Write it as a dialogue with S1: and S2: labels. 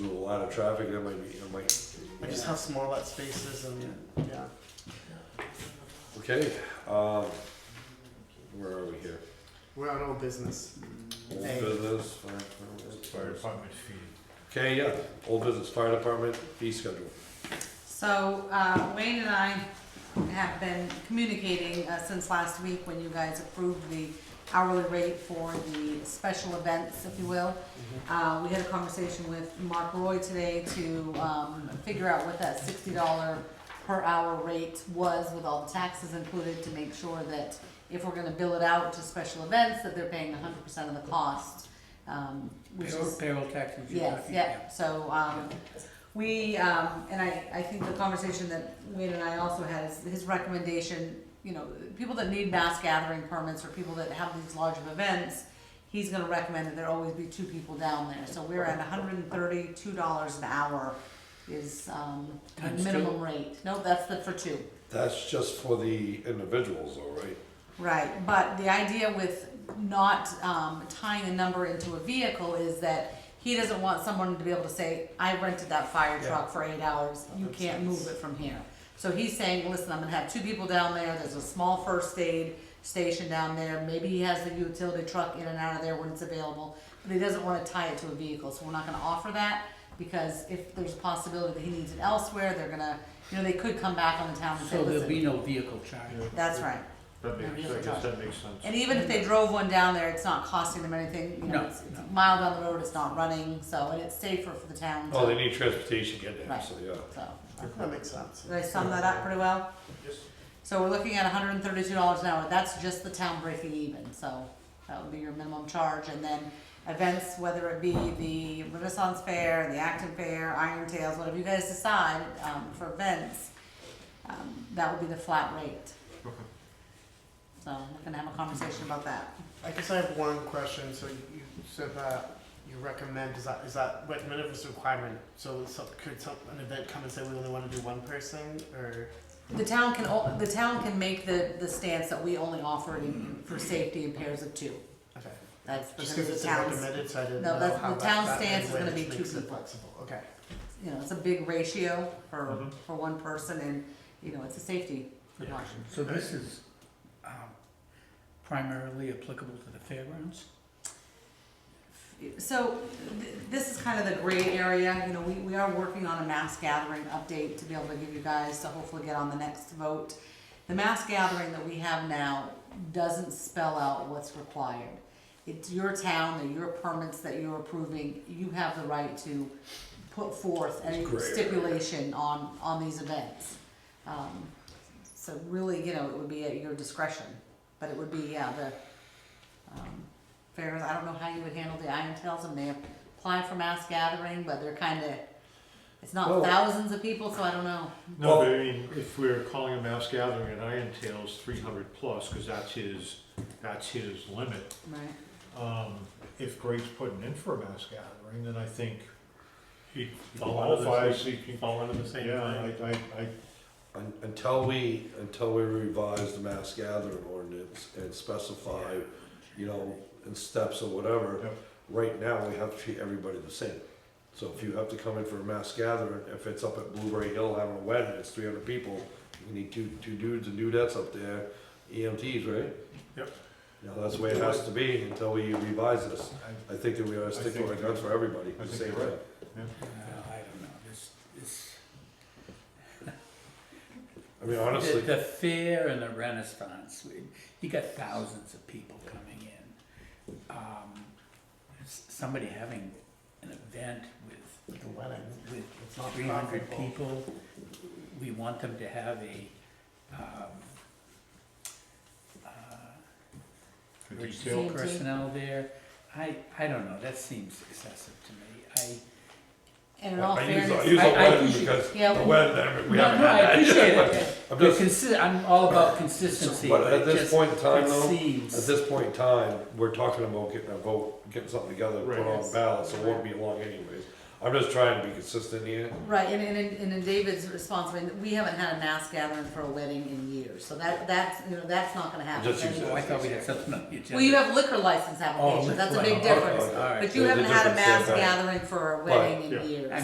S1: lot of traffic, there might be, it might,
S2: I just have some more let spaces and, yeah.
S1: okay, um, where are we here?
S2: We're on old business.
S1: Old
S2: Hey.
S1: business, fire department,
S3: Fire department fee.
S1: okay, yeah, old business, fire department, fee schedule.
S4: So uh, Wayne and I have been communicating uh, since last week when you guys approved the hourly rate for the special events, if you will. Uh, We had a conversation with Mark Roy today to um, figure out what that sixty dollar per hour rate was with all the taxes included to make sure that if we're gonna bill it out to special events, that they're paying hundred percent of the cost. um, which
S5: Payroll,
S4: is-
S5: payroll taxes. you're
S4: Yes,
S5: talking
S4: yeah,
S5: about.
S4: so, um, we, um, and I, I think the conversation that Wade and I also had is his recommendation, you know, people that need mass gathering permits or people that have these large of events, he's gonna recommend that there always be two people down there, so we're at hundred and thirty-two dollars an hour is, um, the
S5: Times two.
S4: minimum rate, no, that's the, for two.
S1: That's just for the individuals though, right?
S4: Right, but the idea with not um, tying a number into a vehicle is that he doesn't want someone to be able to say, I rented that fire truck for eight hours, you
S2: That
S4: can't
S2: makes
S4: move it from here. So he's saying, listen, I'm gonna have two people down there, there's a small first aid station down there, maybe he has the utility truck in and out of there when it's available, but he doesn't wanna tie it to a vehicle, so we're not gonna offer that, because if there's a possibility that he needs it elsewhere, they're gonna, you know, they could come back on the town and say,
S5: So there'll be
S4: listen,
S5: no vehicle charge.
S4: that's right.
S3: That
S4: Maybe
S3: makes,
S4: it's
S3: I
S4: a
S3: guess
S4: charge.
S3: that makes sense.
S4: And even if they drove one down there, it's not costing them anything, you know,
S5: No,
S4: it's, it's
S5: no.
S4: a mile down the road, it's not running, so, and it's safer for the town.
S1: Oh, they
S4: so-
S1: need transportation getting there,
S4: Mm-hmm. Right.
S1: so yeah.
S4: So,
S2: That makes sense.
S4: did I sum that up pretty well?
S3: Yes.
S4: So we're looking at hundred and thirty-two dollars an hour, that's just the town breaking even, so that would be your minimum charge, and then events, whether it be the Renaissance Fair, the Acton Fair, Iron Tales, whatever you guys decide, um, for events, um, that would be the flat rate. So, we're gonna have a conversation about that.
S2: I guess I have one question. So you you said that you recommend, is that, is that what minimum is requirement? So some, could some, an event come and say we only wanna do one person or?
S4: The town can, o- the town can make the, the stance that we only offer it in- for safety in pairs of two.
S2: Okay.
S4: That's
S2: Just
S4: because
S2: cause
S4: the
S2: it's
S4: town's,
S2: recommended, so I didn't
S4: No,
S2: know
S4: that's-
S2: how
S4: the
S2: that,
S4: town's
S2: that
S4: stance is gonna
S2: language
S4: be two
S2: makes it
S4: people.
S2: flexible. Okay.
S4: you know, it's a big ratio for,
S3: Mhm.
S4: for one person and, you know, it's a safety precaution.
S5: So this is um, primarily applicable to the fairgrounds?
S4: So th- this is kind of the gray area, you know, we, we are working on a mass gathering update to be able to give you guys to hopefully get on the next vote. The mass gathering that we have now doesn't spell out what's required. It's your town, they're your permits that you're approving, you have the right to put forth any
S1: It's gray area.
S4: stipulation on, on these events. Um, So really, you know, it would be at your discretion, but it would be, yeah, the, um, fairs, I don't know how you would handle the Iron Tails, and they apply for mass gathering, but they're kinda, it's
S1: Well-
S4: not thousands of people, so I don't know.
S3: No, but I mean, if we're calling a mass gathering at Iron Tales, three hundred plus, cause that's his, that's his limit.
S4: Right.
S3: Um, if Greg's putting in for a mass gathering, then I think he
S6: fall under the
S3: qualifies.
S6: same- You fall under the same
S3: Yeah, I,
S6: thing.
S3: I, I,
S1: Un- Until we, until we revise the mass gathering ordinance and specify, you know, in steps or whatever,
S3: Yep.
S1: right now, we have to treat everybody the same. So if you have to come in for a mass gathering, if it's up at Blueberry Hill having a wedding, it's three hundred people, you need two, two dudes and dudettes up there, EMTs, right?
S3: Yep.
S1: Now, that's the way it has to be until we revise this.
S3: I,
S1: I think that we gotta
S3: I
S1: stick to
S3: think
S1: our
S3: you're
S1: guns for everybody,
S3: I
S1: the
S3: think
S1: same
S3: you're
S1: way.
S3: right.
S5: Uh, I don't know, this, this.
S1: I mean, honestly,
S5: The the fair and the renaissance, we- you got thousands of people coming in. Um, s- Somebody having an event with,
S2: Like a wedding.
S5: with
S2: It's not
S5: three hundred
S2: profitable.
S5: people, we want them to have a, um, uh,
S3: a
S5: emergency
S3: detail,
S4: Detail.
S5: personnel there. I, I don't know, that seems excessive to me.
S4: And in all
S1: I use, I
S4: fairness,
S1: use a
S5: I- I
S1: wedding
S5: appreciate-
S1: because
S4: yeah,
S1: the
S4: we-
S1: wedding,
S5: I,
S1: we
S5: no,
S1: haven't
S5: no, I
S1: had that yet.
S5: appreciate it.
S1: I'm
S5: But
S1: just,
S5: consi- I'm all about consistency,
S1: but
S5: but
S1: at
S5: it
S1: this
S5: just,
S1: point in time,
S5: it
S1: though, at
S5: seems.
S1: this point in time, we're talking about getting a vote, getting something together, put
S3: Right.
S1: on the ballot, so it won't be long anyways. I'm just trying to be consistent here.
S4: right, and, and, in- and in David's response, I mean, we haven't had a mass gathering for a wedding in years, so that, that's, you know, that's not gonna happen.
S1: Just use
S5: Oh,
S4: anymore.
S5: I thought we had something on the agenda.
S4: Well, you have liquor license
S5: Oh,
S4: applications, that's a
S5: liquor-
S4: big
S5: oh,
S4: difference,
S1: okay,
S5: all right.
S4: but you
S1: There's a
S4: haven't had a
S1: difference, yeah,
S4: mass
S1: right.
S4: gathering for a wedding
S3: yeah.
S4: in years.